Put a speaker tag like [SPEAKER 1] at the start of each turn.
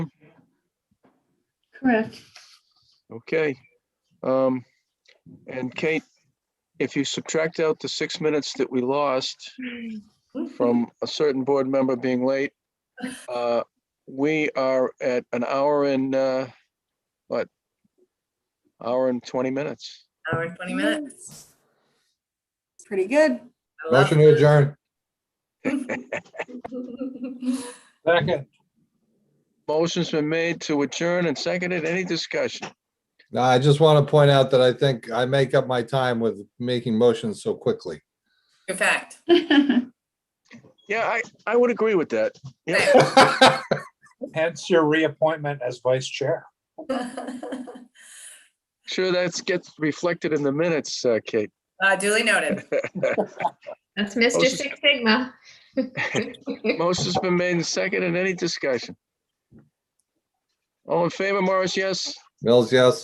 [SPEAKER 1] Correct.
[SPEAKER 2] Okay. Um, and Kate, if you subtract out the six minutes that we lost from a certain board member being late, uh, we are at an hour and, uh, what? Hour and 20 minutes.
[SPEAKER 3] Hour and 20 minutes.
[SPEAKER 4] Pretty good.
[SPEAKER 3] I love
[SPEAKER 5] Motion to
[SPEAKER 3] it.
[SPEAKER 5] adjourn.
[SPEAKER 6] Second.
[SPEAKER 2] Motion's been made to adjourn and seconded. Any discussion?
[SPEAKER 5] No, I just want to point out that I think I make up my time with making motions so quickly.
[SPEAKER 3] Good fact.
[SPEAKER 2] Yeah, I, I would agree with that. Yeah.
[SPEAKER 6] Hence your reappointment as vice chair.
[SPEAKER 3] Uh,
[SPEAKER 2] Sure, that's gets reflected in the minutes, uh, Kate.
[SPEAKER 3] duly noted.
[SPEAKER 7] That's Mr.
[SPEAKER 2] Motion-
[SPEAKER 7] Six Sigma.
[SPEAKER 2] Motion's been made and seconded. Any discussion? All in favor, Morris? Yes?
[SPEAKER 5] Mills, yes.